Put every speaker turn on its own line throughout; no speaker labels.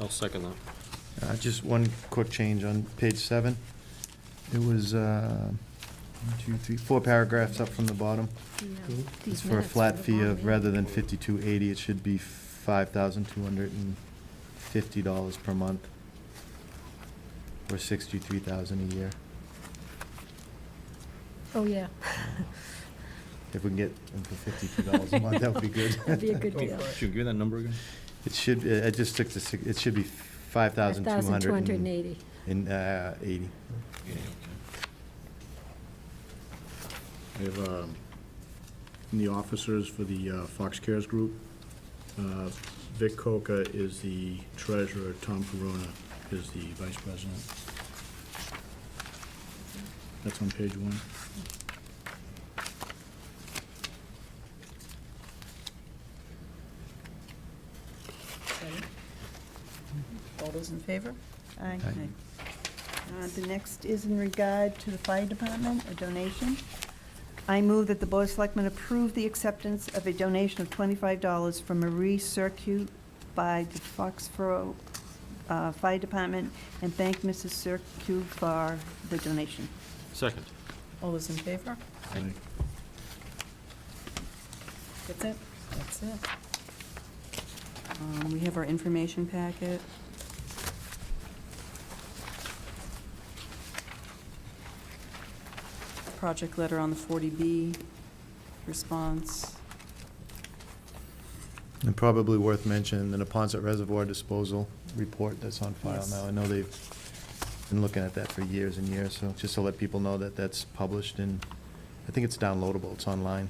I'll second that.
Uh, Just one quick change on page seven. It was, uh, one, two, three, four paragraphs up from the bottom. It's for a flat fee of, rather than fifty-two eighty, it should be five thousand two hundred and fifty dollars per month, or sixty-three thousand a year.
Oh, yeah.
If we can get them for fifty-two dollars a month, that would be good.
That'd be a good
Oh,
deal.
Should give me that number again?
It should, I I just took the, sig- it should be five thousand two hundred and uh, eighty.
1,280.
Yeah,
I have, um, in the officers for the uh, Fox Cares Group, uh, Vic Coca is the treasurer, Tom Corona is the vice president. That's on page one.
Second. All those in favor? Aye.
Aye.
Uh, The next is in regard to the fire department, a donation. I move that the Board of Selectmen approve the acceptance of a donation of $25 from Marie Circuit by the Foxborough uh, Fire Department, and thank Mrs. Circuit for the donation.
Second.
All those in favor?
Aye.
That's it? That's it.
Um, We have our information packet.
Project letter on the 40B response.
And probably worth mentioning, the Napontet Reservoir Disposal Report that's on file
Yes.
now. I know they've been looking at that for years and years, so just to let people know that that's published and I think it's downloadable, it's online.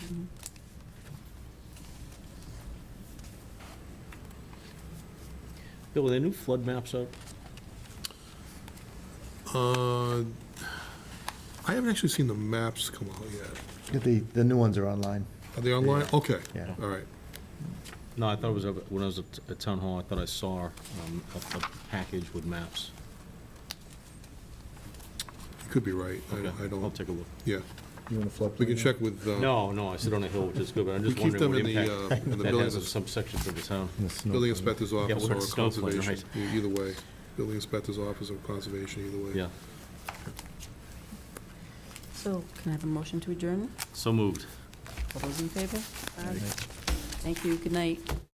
Mhm.
Bill, are there new flood maps out?
Uh, I haven't actually seen the maps come out yet.
The, the new ones are online.
Are they online? Okay,
Yeah.
all right.
No, I thought it was, up- when I was at at Town Hall, I thought I saw um, a a package with maps.
You could be right. I-
Okay,
I
I'll
don't,
take a look.
yeah.
You want to flip?
We can check with, uh,
No, no, I sit on a hill, which is good, but I'm
we
just
keep
wondering
them
what
in the,
impact
uh, in the
that has
building,
on some sections of the town.
in the snow.
building inspector's office
we're in
or
Snowflake,
conservation.
right.
E- Either way, building inspector's office or conservation, either way.
Yeah,
So can I have a motion to adjourn?
so moved.
All those in favor?
Uh,
Thank you. Good night.